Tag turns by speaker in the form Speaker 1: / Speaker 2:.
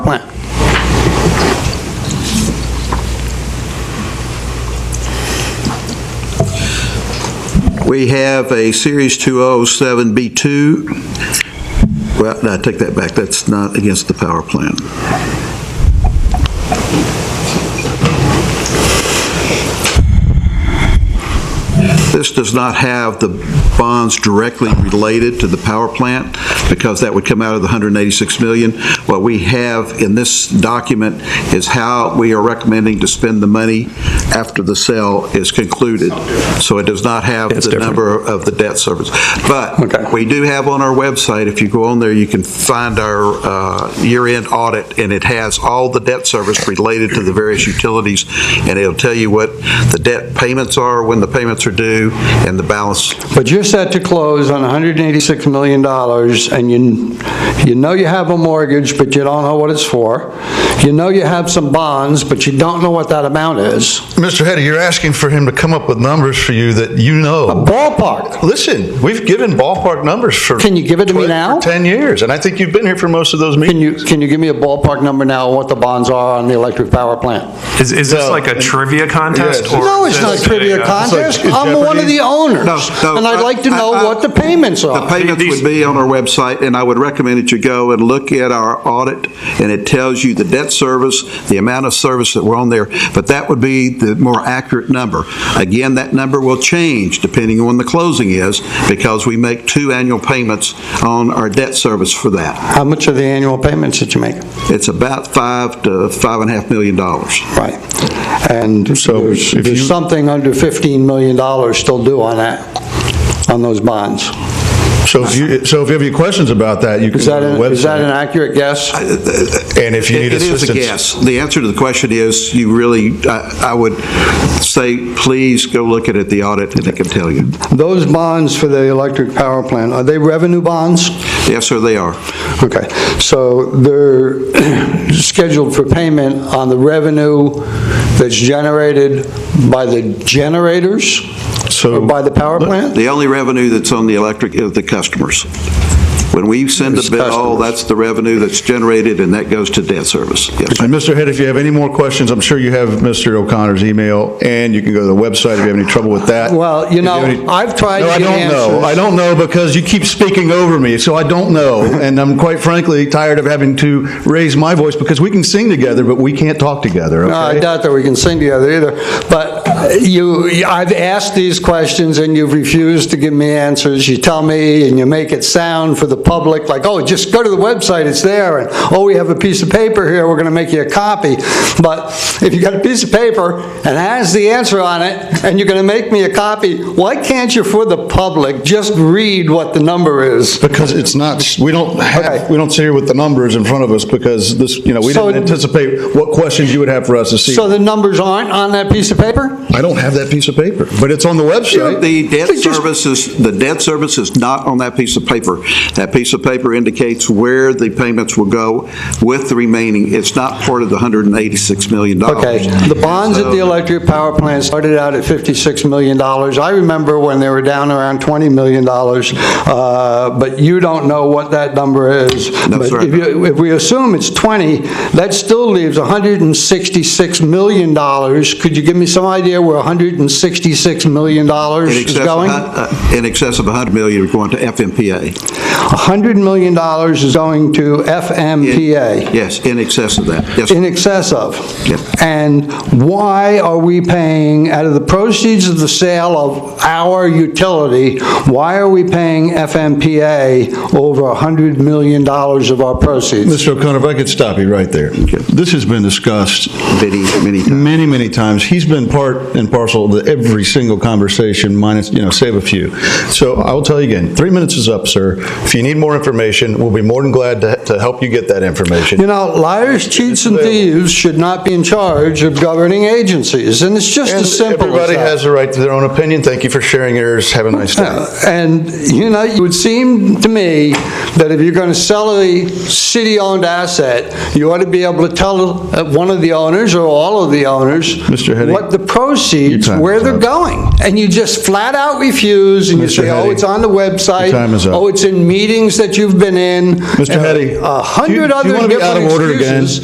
Speaker 1: We have a Series 207B2. Well, no, I take that back, that's not against the power plant. This does not have the bonds directly related to the power plant, because that would come out of the 186 million. What we have in this document is how we are recommending to spend the money after the sale is concluded. So it does not have
Speaker 2: It's
Speaker 1: the
Speaker 2: different.
Speaker 1: number of the debt service.
Speaker 2: Okay.
Speaker 1: But we do have on our website, if you go on there, you can find our uh, year-end audit, and it has all the debt service related to the various utilities, and it'll tell you what the debt payments are, when the payments are due, and the balance.
Speaker 2: But you're set to close on $186 million, and you, you know you have a mortgage, but you don't know what it's for. You know you have some bonds, but you don't know what that amount is.
Speaker 3: Mr. Hetty, you're asking for him to come up with numbers for you that you know.
Speaker 2: Ballpark.
Speaker 3: Listen, we've given ballpark numbers for.
Speaker 2: Can you give it to me
Speaker 3: 12 or
Speaker 2: now?
Speaker 3: 10 years, and I think you've been here for most of those
Speaker 2: Can
Speaker 3: meetings.
Speaker 2: you, can you give me a ballpark number now on what the bonds are on the electric power plant?
Speaker 4: Is, is this
Speaker 3: No.
Speaker 4: like a trivia contest?
Speaker 3: Yeah,
Speaker 4: or
Speaker 2: No,
Speaker 4: is
Speaker 2: it's not
Speaker 4: this
Speaker 2: trivia
Speaker 4: a, uh,
Speaker 2: contest.
Speaker 3: like
Speaker 2: I'm one of
Speaker 3: Jeopardy.
Speaker 2: the owners,
Speaker 1: No, no,
Speaker 2: and I'd like to
Speaker 1: I-
Speaker 2: know
Speaker 1: I-
Speaker 2: what the payments
Speaker 1: The
Speaker 2: are.
Speaker 3: Uh,
Speaker 1: payments would be on our website, and I would recommend that you go and look at our audit, and it tells you the debt service, the amount of service that were on there, but that would be the more accurate number. Again, that number will change depending on when the closing is, because we make two annual payments on our debt service for that.
Speaker 2: How much are the annual payments that you make?
Speaker 1: It's about five to five and a half million dollars.
Speaker 2: Right. And there's
Speaker 3: if
Speaker 2: there's
Speaker 3: you-
Speaker 2: something under $15 million still due on that, on those bonds.
Speaker 3: So if you, so if you have any questions about that, you can
Speaker 2: Is
Speaker 3: go
Speaker 2: that
Speaker 3: to the
Speaker 2: an- is that an
Speaker 3: website.
Speaker 2: accurate guess?
Speaker 3: And if you
Speaker 1: It
Speaker 3: need
Speaker 1: it is
Speaker 3: assistance.
Speaker 1: a guess. The answer to the question is, you really, I I would say, please go look at it, the audit, and it can tell you.
Speaker 2: Those bonds for the electric power plant, are they revenue bonds?
Speaker 1: Yes, sir, they are.
Speaker 2: Okay, so they're scheduled for payment on the revenue that's generated by the generators?
Speaker 3: So-
Speaker 2: Or by the power plant?
Speaker 1: The only revenue that's on the electric is the customers. When we send
Speaker 2: It's
Speaker 1: a bill,
Speaker 2: customers.
Speaker 1: that's the revenue that's generated, and that goes to debt service. Yes, sir.
Speaker 3: And Mr. Head, if you have any more questions, I'm sure you have Mr. O'Connor's email, and you can go to the website if you have any trouble with that.
Speaker 2: Well, you
Speaker 3: If
Speaker 2: know,
Speaker 3: have any-
Speaker 2: I've tried to get
Speaker 3: No, I don't
Speaker 2: answers.
Speaker 3: know. I don't know because you keep speaking over me, so I don't know. And I'm quite frankly tired of having to raise my voice because we can sing together, but we can't talk together,
Speaker 2: No, I
Speaker 3: okay?
Speaker 2: doubt that we can sing together either, but you, I've asked these questions and you've refused to give me answers. You tell me and you make it sound for the public like, oh, just go to the website, it's there, and, oh, we have a piece of paper here, we're gonna make you a copy. But if you got a piece of paper and has the answer on it, and you're gonna make me a copy, why can't you, for the public, just read what the number is?
Speaker 3: Because it's not, we don't
Speaker 2: Okay.
Speaker 3: have, we don't sit here with the numbers in front of us because this, you know, we
Speaker 2: So-
Speaker 3: didn't anticipate what questions you would have for us to see.
Speaker 2: So the numbers aren't on that piece of paper?
Speaker 3: I don't have that piece of paper, but it's on the website.
Speaker 1: The debt
Speaker 2: They just-
Speaker 1: service is, the debt service is not on that piece of paper. That piece of paper indicates where the payments will go with the remaining. It's not part of the $186 million.
Speaker 2: Okay, the bonds at the
Speaker 1: Oh, So-
Speaker 2: electric power plant started out at $56 million. I remember when they were down around $20 million, uh, but you don't know what that number is.
Speaker 1: That's
Speaker 2: But
Speaker 1: right.
Speaker 2: if you- If we assume it's 20, that still leaves $166 million. Could you give me some idea where $166 million
Speaker 1: In
Speaker 2: is
Speaker 1: excess of
Speaker 2: going?
Speaker 1: hun- uh, In excess of 100 million are going to FMPA.
Speaker 2: $100 million is going to FMPA.
Speaker 1: Yes, in excess of that. Yes,
Speaker 2: in excess of.
Speaker 1: Yep.
Speaker 2: And why are we paying, out of the proceeds of the sale of our utility, why are we paying FMPA over $100 million of our proceeds?
Speaker 3: Mr. O'Connor, if I could stop you right there. This has been discussed
Speaker 1: many, many times.
Speaker 3: many, many times. He's been part and parcel of every single conversation, minus, you know, save a few. So I will tell you again, three minutes is up, sir. If you need more information, we'll be more than glad to, to help you get that
Speaker 2: You
Speaker 3: information.
Speaker 2: know, liars, cheats, and thieves should not be in charge of governing agencies, and it's just
Speaker 3: And
Speaker 2: as simple as
Speaker 3: Everybody
Speaker 2: that.
Speaker 3: has the right to their own opinion. Thank you for sharing yours. Have a nice day.
Speaker 2: Uh, And, you know, it would seem to me that if you're going to sell a city-owned asset, you ought to be able to tell uh, one of the owners or all of the owners
Speaker 3: Mr. Henning,
Speaker 2: what the proceeds,
Speaker 3: your time
Speaker 2: where
Speaker 3: is
Speaker 2: they're
Speaker 3: up.
Speaker 2: going. And you just flat out refuse, and you
Speaker 3: Mr.
Speaker 2: say, oh,
Speaker 3: Henning,
Speaker 2: it's on the website.
Speaker 3: your time is up.
Speaker 2: Oh, it's in meetings that you've been in.
Speaker 3: Mr.
Speaker 2: And
Speaker 3: Henning,
Speaker 2: A
Speaker 3: do you-
Speaker 2: hundred
Speaker 3: do you
Speaker 2: other
Speaker 3: wanna be out of
Speaker 2: different
Speaker 3: order again?
Speaker 2: excuses.